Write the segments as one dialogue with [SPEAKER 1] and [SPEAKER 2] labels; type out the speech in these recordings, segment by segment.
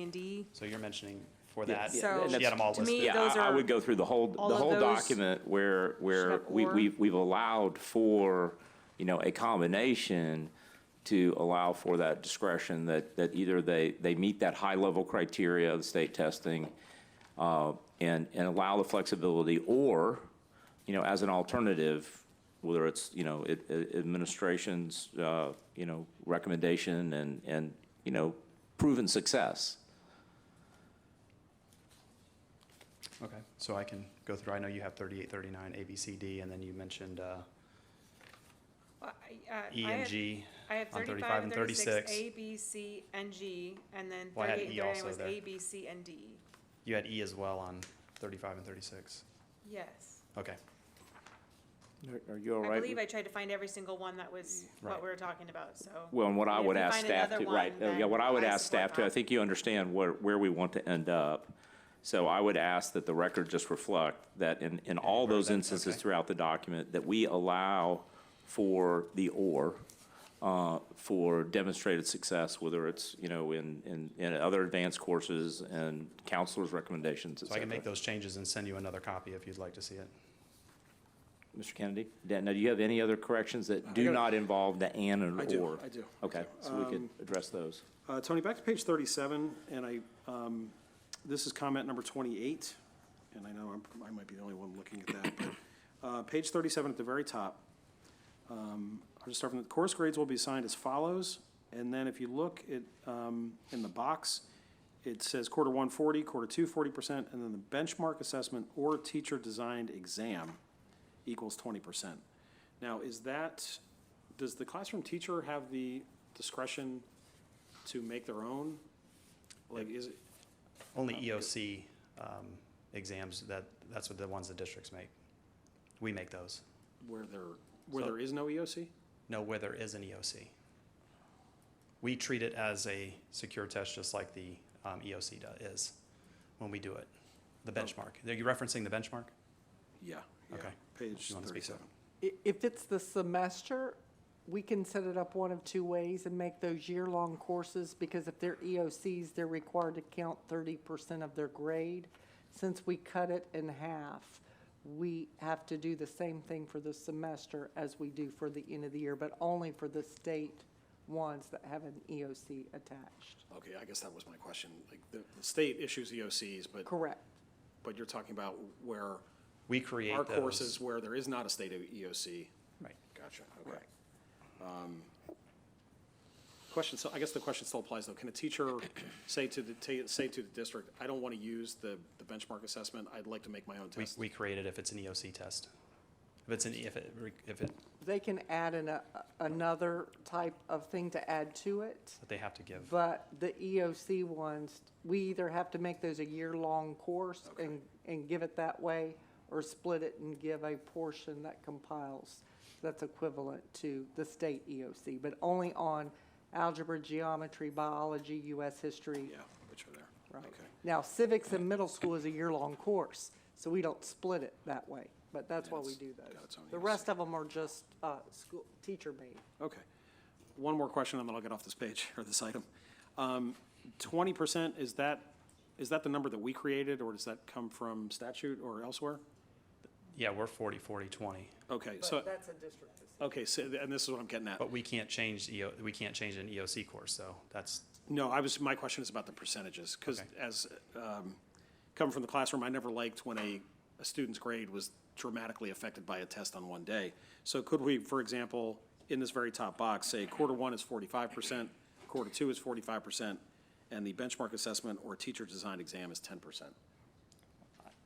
[SPEAKER 1] and D.
[SPEAKER 2] So you're mentioning for
[SPEAKER 3] Yeah,
[SPEAKER 2] that, she
[SPEAKER 3] yeah, and
[SPEAKER 1] So,
[SPEAKER 2] had them all
[SPEAKER 1] to me,
[SPEAKER 2] listed.
[SPEAKER 3] Yeah,
[SPEAKER 1] those
[SPEAKER 3] I- I
[SPEAKER 1] are-
[SPEAKER 3] would go through the whole, the
[SPEAKER 1] all of
[SPEAKER 3] whole
[SPEAKER 1] those
[SPEAKER 3] document where, where
[SPEAKER 1] have
[SPEAKER 3] we,
[SPEAKER 1] or.
[SPEAKER 3] we've, we've allowed for, you know, a combination to allow for that discretion that, that either they, they meet that high-level criteria of state testing uh, and, and allow the flexibility, or, you know, as an alternative, whether it's, you know, it- it- administration's, uh, you know, recommendation and, and, you know, proven success.
[SPEAKER 2] Okay, so I can go through, I know you have 38, 39, A, B, C, D, and then you mentioned uh,
[SPEAKER 1] Well, I- uh,
[SPEAKER 2] E
[SPEAKER 1] I
[SPEAKER 2] and
[SPEAKER 1] had-
[SPEAKER 2] G.
[SPEAKER 1] I have
[SPEAKER 2] on
[SPEAKER 1] 35 and 36,
[SPEAKER 2] 36.
[SPEAKER 1] A, B, C, and G, and then
[SPEAKER 2] Well, I had
[SPEAKER 1] 38 and
[SPEAKER 2] E
[SPEAKER 1] 39
[SPEAKER 2] also
[SPEAKER 1] was
[SPEAKER 2] there.
[SPEAKER 1] A, B, C, and D.
[SPEAKER 2] You had E as well on 35 and 36.
[SPEAKER 1] Yes.
[SPEAKER 2] Okay,
[SPEAKER 3] Are you all
[SPEAKER 1] I believe I tried to find every single one that was what
[SPEAKER 2] Right.
[SPEAKER 1] we were talking about, so.
[SPEAKER 3] Well, and what I
[SPEAKER 1] And if
[SPEAKER 3] would
[SPEAKER 1] we
[SPEAKER 3] ask
[SPEAKER 1] find
[SPEAKER 3] staff
[SPEAKER 1] another
[SPEAKER 3] to, right,
[SPEAKER 1] one,
[SPEAKER 3] uh, yeah, what I
[SPEAKER 1] then
[SPEAKER 3] would
[SPEAKER 1] I
[SPEAKER 3] ask
[SPEAKER 1] support
[SPEAKER 3] staff to, I
[SPEAKER 1] that.
[SPEAKER 3] think you understand where, where we want to end up. So I would ask that the record just reflect that in, in all
[SPEAKER 2] where
[SPEAKER 3] those
[SPEAKER 2] that-
[SPEAKER 3] instances
[SPEAKER 2] okay.
[SPEAKER 3] throughout the document, that we allow for the or, uh, for demonstrated success, whether it's, you know, in, in, in other advanced courses and counselors' recommendations, et
[SPEAKER 2] so I can make
[SPEAKER 3] cetera.
[SPEAKER 2] those changes and send you another copy if you'd like to see it.
[SPEAKER 3] Mr. Kennedy, Dan, now, do you have any other corrections that do
[SPEAKER 4] got a-
[SPEAKER 3] not involve the and and or?
[SPEAKER 4] I do, I do, I
[SPEAKER 3] Okay,
[SPEAKER 4] do.
[SPEAKER 3] so we could
[SPEAKER 4] Um,
[SPEAKER 3] address those.
[SPEAKER 4] Uh, Tony, back to page 37, and I, um, this is comment number 28, and I know I'm- I might be the only one looking at that, but uh, page 37 at the very top. um, I'll just start from, the course grades will be assigned as follows, and then if you look at, um, in the box, it says quarter one 40, quarter two 40%, and then the benchmark assessment or teacher-designed exam equals 20%. Now, is that, does the classroom teacher have the discretion to make their own? Like, is it,
[SPEAKER 1] Oh,
[SPEAKER 2] Only EOC um, exams, that, that's what the ones the districts make. We make those.
[SPEAKER 4] where there, where
[SPEAKER 2] So-
[SPEAKER 4] there is no E EOC?
[SPEAKER 2] No, where there is an EOC. We treat it as a secure test, just like the um, EOC do- is, when we do it.
[SPEAKER 4] Oh.
[SPEAKER 2] The benchmark. Are you referencing the benchmark?
[SPEAKER 4] Yeah. yeah.
[SPEAKER 2] Okay.
[SPEAKER 4] Page
[SPEAKER 2] You wanna speak to that?
[SPEAKER 4] thirty-seven.
[SPEAKER 5] I- If it's the semester, we can set it up one of two ways and make those year-long courses, because if they're EOCs, they're required to count thirty percent of their grade. Since we cut it in half, we have to do the same thing for the semester as we do for the end of the year, but only for the state ones that have an EOC attached.
[SPEAKER 4] Okay, I guess that was my question. Like, the, the state issues EOCs, but,
[SPEAKER 5] Correct.
[SPEAKER 4] but you're talking about where
[SPEAKER 2] We create
[SPEAKER 4] our
[SPEAKER 2] those.
[SPEAKER 4] courses where there is not a state of EOC.
[SPEAKER 2] Right.
[SPEAKER 4] Gotcha, okay. Um, Question, so I guess the question still applies though. Can a teacher say to the, ta- say to the district, I don't want to use the, the benchmark assessment, I'd like to make my own
[SPEAKER 2] We,
[SPEAKER 4] test?
[SPEAKER 2] we create it if it's an EOC test. If it's an, E, if it, if it,
[SPEAKER 5] They can add an, a- another type of thing to add to it.
[SPEAKER 2] that they have to give.
[SPEAKER 5] But the EOC ones, we either have to make those a year-long course and, and give it that way, or split it and give a portion that compiles. That's equivalent to the state EOC, but only on algebra, geometry, biology, US history.
[SPEAKER 4] Yeah, which are there.
[SPEAKER 5] Right.
[SPEAKER 4] Okay.
[SPEAKER 5] Now civics in middle school is a year-long course, so we don't split it that way, but that's why we
[SPEAKER 4] That's
[SPEAKER 5] do
[SPEAKER 4] got its
[SPEAKER 5] those.
[SPEAKER 4] own E
[SPEAKER 5] The
[SPEAKER 4] EOC.
[SPEAKER 5] rest of them are just, uh, school, teacher-made.
[SPEAKER 4] Okay. One more question, and then I'll get off this page, or this item. Um, Twenty percent, is that, is that the number that we created, or does that come from statute or elsewhere?
[SPEAKER 2] Yeah, we're 40, 40, 20,
[SPEAKER 4] Okay, so,
[SPEAKER 5] that's a district decision.
[SPEAKER 4] okay, so, and this is what I'm getting at.
[SPEAKER 2] but we can't change EO, we can't change an EOC course, so that's,
[SPEAKER 4] No, I was, my question is about the percentages, because
[SPEAKER 2] Okay.
[SPEAKER 4] as, um, coming from the classroom, I never liked when a, a student's grade was dramatically affected by a test on one day. So could we, for example, in this very top box, say quarter one is forty-five percent, quarter two is forty-five percent, and the benchmark assessment or teacher-designed exam is ten percent?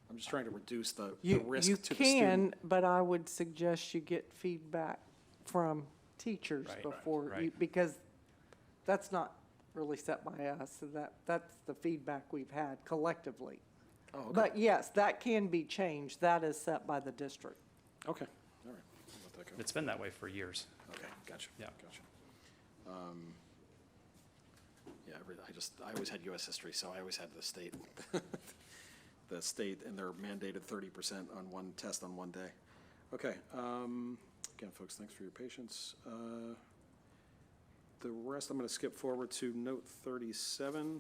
[SPEAKER 4] I'm just trying to reduce the, the
[SPEAKER 5] You,
[SPEAKER 4] risk
[SPEAKER 5] you
[SPEAKER 4] to the student.
[SPEAKER 5] can, but I would suggest you get feedback from teachers
[SPEAKER 2] Right, right,
[SPEAKER 5] before you,
[SPEAKER 2] right.
[SPEAKER 5] because that's not really set by us, so that, that's the feedback we've had collectively.
[SPEAKER 4] Oh, okay.
[SPEAKER 5] But yes, that can be changed, that is set by the district.
[SPEAKER 4] Okay, all right. I'll let that go.
[SPEAKER 2] it's been that way for years.
[SPEAKER 4] Okay, gotcha.
[SPEAKER 2] Yeah.
[SPEAKER 4] Gotcha. Um, Yeah, I re- I just, I always had US history, so I always had the state, the state and their mandated thirty percent on one test on one day. Okay, um, again, folks, thanks for your patience. Uh, The rest, I'm gonna skip forward to note thirty-seven.